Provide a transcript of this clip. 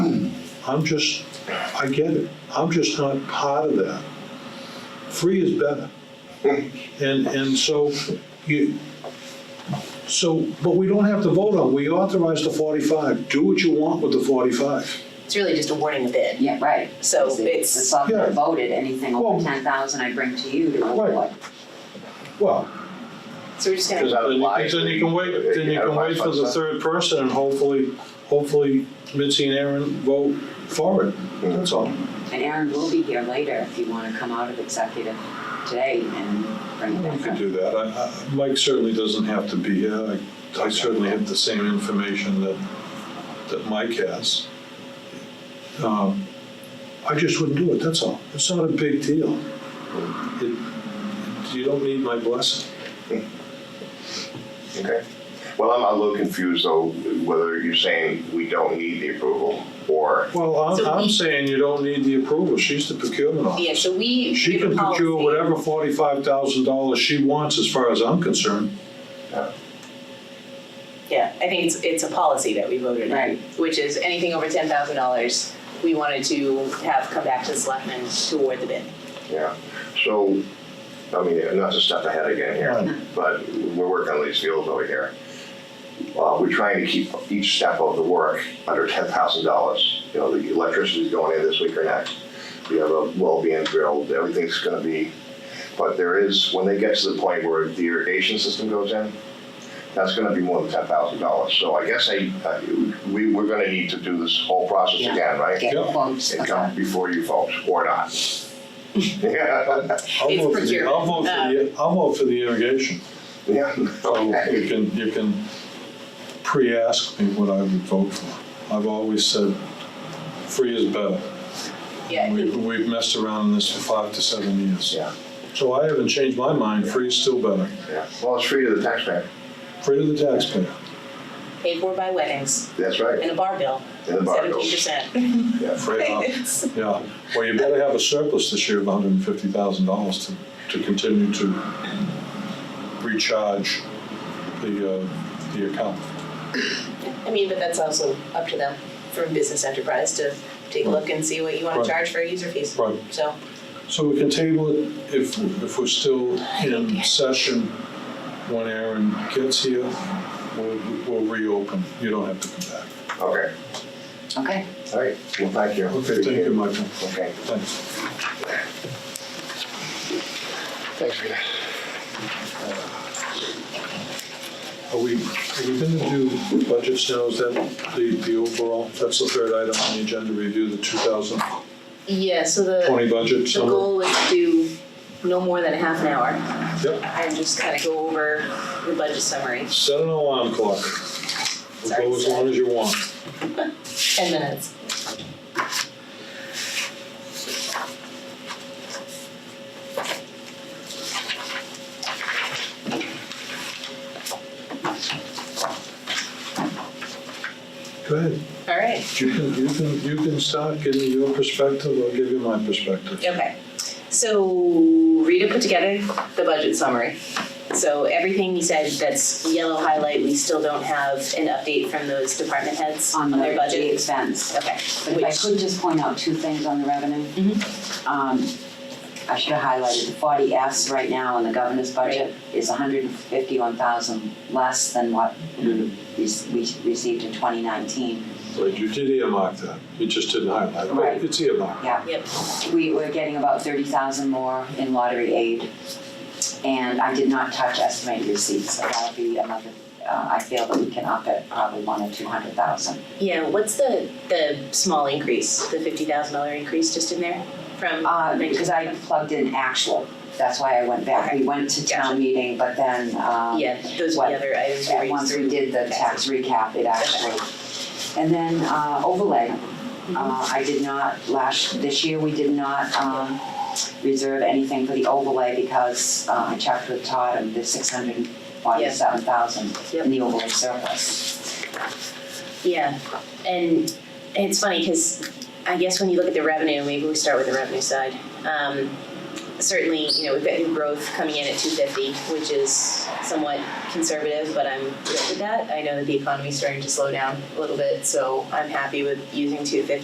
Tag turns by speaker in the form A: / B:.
A: I'm just, I get it, I'm just not part of that. Free is better. And, and so you, so, but we don't have to vote on, we authorized the forty-five, do what you want with the forty-five.
B: It's really just awarding the bid.
C: Yeah, right.
B: So
C: Because
B: it's-
C: It's all
A: Yeah.
C: voted, anything
A: Well-
C: over ten thousand I bring to you to
A: Right.
C: award.
A: Well,
B: So we're just gonna,
A: then you can, then you can wait, then you can wait for the third person and hopefully, hopefully Mitzi and Aaron vote for it, that's all.
C: And Aaron will be here later if you wanna come out of executive today and bring it
A: We
C: back
A: could
C: up.
A: do that. I- I- Mike certainly doesn't have to be here. I- I certainly have the same information that, that Mike has. Um, I just wouldn't do it, that's all. It's not a big deal. It- You don't need my blessing.
D: Okay. Well, I'm a little confused though, whether you're saying we don't need the approval or,
A: Well, I'm,
B: So
A: I'm
B: we-
A: saying you don't need the approval. She's the procurement
B: yeah,
A: officer.
B: so we
A: She
B: give a
A: can procure
B: policy.
A: whatever forty-five thousand dollars she wants, as far as I'm concerned.
B: Yeah, I think it's, it's a policy that we voted on,
C: Right.
B: which is anything over ten thousand dollars, we wanted to have come back to the selectmen to award the bid.
D: yeah. So, I mean, not to step ahead again here, but we're working on these fields over here. Uh, we're trying to keep each step of the work under ten thousand dollars. You know, the electricity's going in this week or next. We have a well being drilled, everything's gonna be, but there is, when they get to the point where the irrigation system goes in, that's gonna be more than ten thousand dollars. So I guess I, I- we, we're gonna need to do this whole process
C: Yeah.
D: again, right?
C: Get
A: Yeah.
C: quotes.
D: and
C: okay.
D: come before you folks, or not. Yeah,
A: I'll
B: It's
A: vote for the-
B: procurement. Uh,
A: I'll vote for the, I'll vote for the irrigation.
D: yeah,
A: So you
D: okay,
A: can, you can pre-ask me what I would vote for. I've always said, free is better.
B: Yeah, I
A: We've,
B: think,
A: we've messed around in this for five to seven years.
D: yeah,
A: So I haven't changed my mind, free is still better.
D: yeah. Well, it's free to the taxpayer,
A: Free to the taxpayer.
B: paid for by weddings
D: that's right,
B: and a bar bill,
D: in the bar
B: seventeen
D: goes.
B: percent.
D: Yeah.
A: Free up. Yeah, well, you better have a surplus this year of hundred and fifty thousand dollars to, to continue to recharge the, uh, the account.
B: I mean, but that's also up to them for a business enterprise to take a look and see what you wanna
A: Right.
B: charge for user fees.
A: Right.
B: So,
A: So we can table it if, if we're still in session when Aaron gets here, we'll, we'll reopen. You don't have to come back.
D: Okay,
C: Okay,
D: all right, well, thank you.
A: Okay, thank you, Michael.
D: Okay.
A: Thanks.
D: Thanks for that.
A: Are we, are we gonna do budgets now? Is that the, the overall, that's the third item on the agenda, review the two thousand
B: yeah, so the,
A: twenty budget
B: the
A: summary?
B: goal is to do no more than a half an hour
A: Yep,
B: and just kinda go over the budget summary,
A: set an alarm clock. We'll go as long as you want.
B: ten minutes.
A: Go ahead.
B: All right.
A: You can, you can, you can start giving your perspective, I'll give you my perspective.
B: Okay, so Rita put together the budget summary. So everything you said that's yellow highlight, we still don't have an update from those department heads
C: on
B: on
C: the
B: their
C: the
B: budgets.
C: expense.
B: Okay,
C: But if I
B: which, Mm-hmm.
C: could just point out two things on the revenue. Um, I should have highlighted the forty S right now in the governor's budget is hundred and fifty-one thousand less than what we re-
B: Mm-hmm.
C: we received in twenty nineteen.
A: Right, you did earmark that, you just didn't highlight, it,
C: Right.
A: but it's earmarked.
C: Yeah.
B: yep,
C: We were getting about thirty thousand more in lottery aid. And I did not touch estimated receipts, so that'll be another, uh, I feel that we can up it probably one or two hundred thousand.
B: yeah, what's the, the small increase, the fifty thousand dollar increase just in there from?
C: Uh,
B: nineteen-
C: because I plugged in actual, that's why I went back. We went to
B: Gotcha.
C: town meeting, but then, um.
B: Yeah, those are
C: what-
B: the other items we
C: Yeah,
B: raised
C: once we
B: through.
C: did the tax recap, it actually. And then uh, overlay.
B: Mm-hmm.
C: Uh, I did not, last, this year, we did not um, reserve anything for the overlay because uh, I checked with Todd and the six hundred and forty-seven thousand
B: Yep.
C: in the overlay surplus.
B: Yeah, and it's funny because I guess when you look at the revenue, maybe we start with the revenue side. Um, certainly, you know, we've got new growth coming in at two fifty, which is somewhat conservative, but I'm good with that. I know that the economy's starting to slow down a little bit, so I'm happy with using two fifty.